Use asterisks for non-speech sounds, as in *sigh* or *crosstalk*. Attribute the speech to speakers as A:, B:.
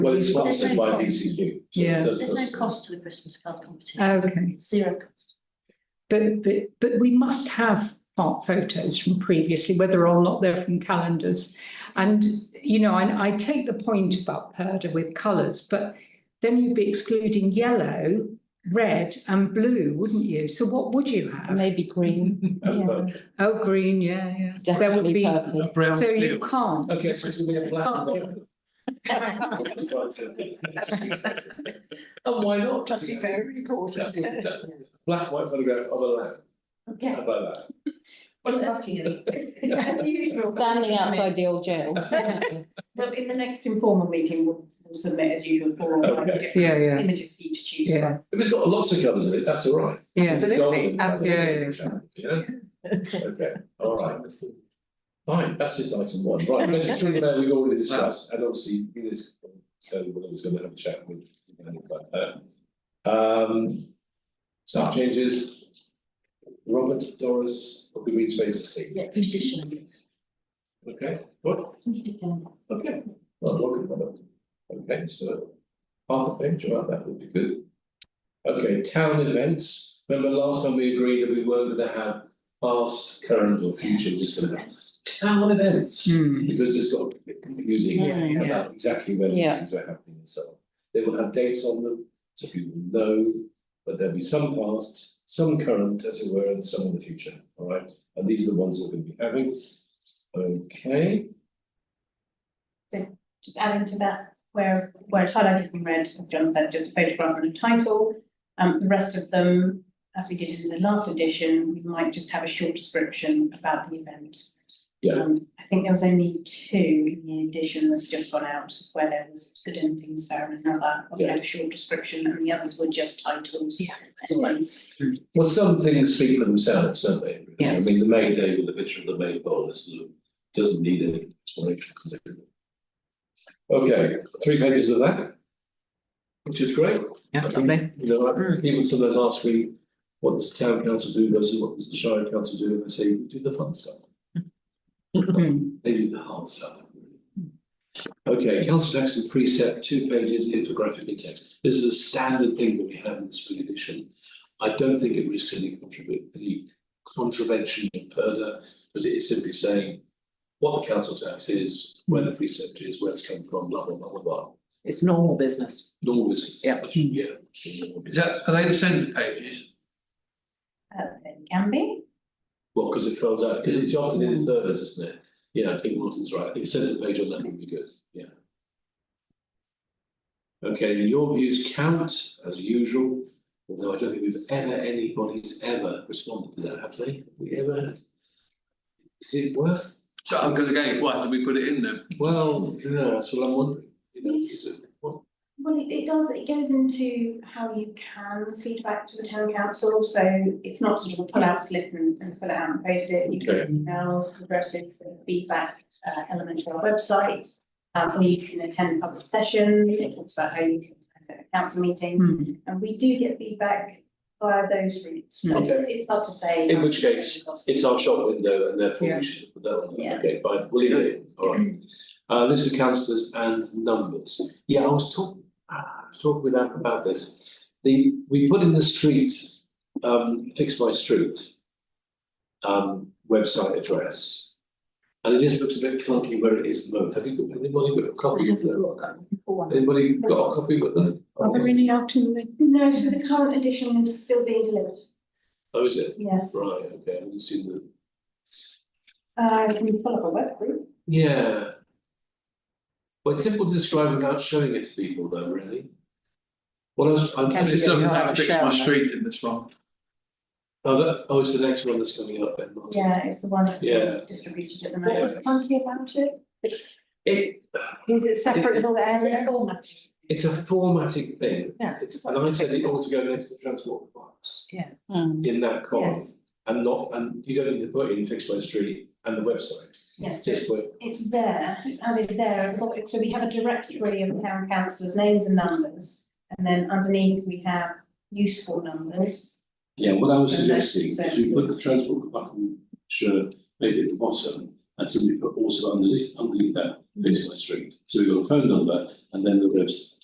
A: Well, it's sponsored by DCQ. so it
B: Yeah.
A: does
C: There's no
A: cost.
C: cost to the Christmas card competition,
B: Okay,
C: it's zero cost.
B: but, but, but we must have art photos from previously, whether or not they're from calendars. And, you know, I, I take the point about Perda with colours, but then you'd be excluding yellow, red and blue, wouldn't you? So what would you have?
D: Maybe green.
B: *laughs*
A: Uh, but-
B: Oh, green, yeah, yeah. There would
D: Definitely
B: be,
D: purple.
E: Brown
B: so you
E: field.
A: *laughs*
B: can't.
A: Okay, so it's gonna be a
B: Can't
A: plan.
B: do-
A: *laughs* And Oh, why not?
F: Must be very gorgeous.
A: Yeah. Black and white photograph of a lamp,
F: Okay.
A: how about that?
F: Well, that's you. As usual.
D: Standing outside the old
F: *laughs*
D: jail.
F: Well, in the next informal meeting, we'll we'll submit as usual for all the
A: Okay.
B: Yeah,
F: different
B: yeah,
F: images for you to choose
B: yeah,
A: *laughs*
F: from.
A: If it's got lots of colours in it, that's all right.
B: yeah.
F: Absolutely,
B: absolutely.
A: Yeah, okay, all right. Fine, that's just item one, right, because it's really now we've already discussed, and obviously, it is, so we're always gonna have a chat with. about that. Um, staff changes. Robert, Doris, of the Green Spaces team,
C: Yeah, petition.
A: okay, what, okay, well, welcome, Robert. Okay, so, half a page about that would be good. Okay, town events, remember last time we agreed that we weren't gonna have past, current or future, just gonna have town events.
B: Hmm.
A: Because it's got a bit confusing
D: Yeah.
A: about exactly when these
D: Yeah.
A: things were happening and so on. They will have dates on them, so people know, but there'll be some past, some current, as it were, and some in the future, all right? And these are the ones we're gonna be having. Okay,
F: Just adding to that, where, where it's highlighted in red, as John said, just photograph and a title. Um, the rest of them, as we did in the last edition, we might just have a short description about the event.
A: Yeah.
F: Um, I think there was only two in the edition that's just gone out, where there was good endings fair and another, we had a short description, and the others were just titles.
D: Yeah.
F: as always.
A: well, some things speak for themselves, don't they? I
D: Yes.
A: mean, the May Day with the picture of the May pole is sort of, doesn't need any explanation. does it? Okay, three pages of that. Which is great.
E: Yeah,
A: I think,
E: lovely. Mm.
A: You know, I- people sometimes ask me, what does the town council do versus what does the shire council do, and I say, we do the fun stuff.
E: Mm-hmm.
A: They do the hard stuff. Okay, council tax and precept, two pages infographically text. This is a standard thing that we have in the spring edition. I don't think it risks any contribute, any contravention in Perda, because it is simply saying what the council tax is, where the precept is, where it's come from, blah, blah, blah, blah, blah.
G: It's normal business.
A: Normal business.
G: Yeah.
A: Yeah.
E: Is that, are they the centre pages?
F: Uh, there can be.
A: Well, because it fills out, because it's often in thirds, isn't it? Yeah, I think Martin's right. I think centre page on that would be good, yeah. Okay, your views count as usual, although I don't think we've ever, anybody's ever responded to that, have they? We ever? Is it worth?
E: So I'm gonna go, why did we put it in there?
A: Well, yeah, that's what I'm wondering. You know, is it, what,
H: Well, it, it does, it goes into how you can feedback to the town council, so it's not sort of a pull-out slip and, and fill it out and post it. You
A: Okay.
H: can email progressives the feedback, uh, element to our website. Um, or you can attend a public session, it talks about how you can attend a council meeting,
B: Hmm.
H: and we do get feedback via those routes, so it's,
A: Okay.
H: it's hard to say.
A: In which case, it's our shop window and therefore
B: Yeah.
A: we should put that on.
H: Yeah.
A: Okay, fine, we'll leave it in, all right. Uh, list of councillors and numbers. Yeah, I was talking, I was talking with Anne about this. The, we put in the street, um, fix my street. Um, website address. And it just looks a bit clunky where it is at the moment. Have you got, anybody got a copy of that? Anybody got a copy of that? Oh,
B: Are there any out in the?
H: No, so the current edition is still being delivered,
A: Oh, is it?
H: yes.
A: Right, okay, I haven't seen the,
F: Uh, can you pull up a web group?
A: yeah. Well, it's difficult to describe without showing it to people though, really. What else? I-
G: Can
E: This
G: Yeah,
E: doesn't
G: you have
E: have
G: a
E: fix my
G: shower.
E: street in this one.
A: Oh, that, oh, it's the next one that's coming up then, Martin.
F: Yeah, it's the one that's
A: Yeah.
F: being distributed at the
H: What
F: moment.
H: was clunky about it?
A: It,
H: Is it separate with all the
C: Is it
H: area?
C: a format?
A: it's a formatting thing.
G: Yeah.
A: It's, and I said it ought to go next to the transport requirements
D: Mm.
A: in that column.
G: Yes.
A: And not, and you don't need to put in fixed by street and the website,
H: Yes,
A: just put,
H: it's there, it's added there, I've got it- so we have a directory of town councillors' names and numbers. And then underneath, we have useful numbers.
A: Yeah, what I was
H: The next
A: suggesting is we put the
H: sentence.
A: transport department, sure, maybe at
H: Mm-hmm.
A: the bottom, and simply put also underneath, underneath that, fixed by street. So we've got a phone number and then the website.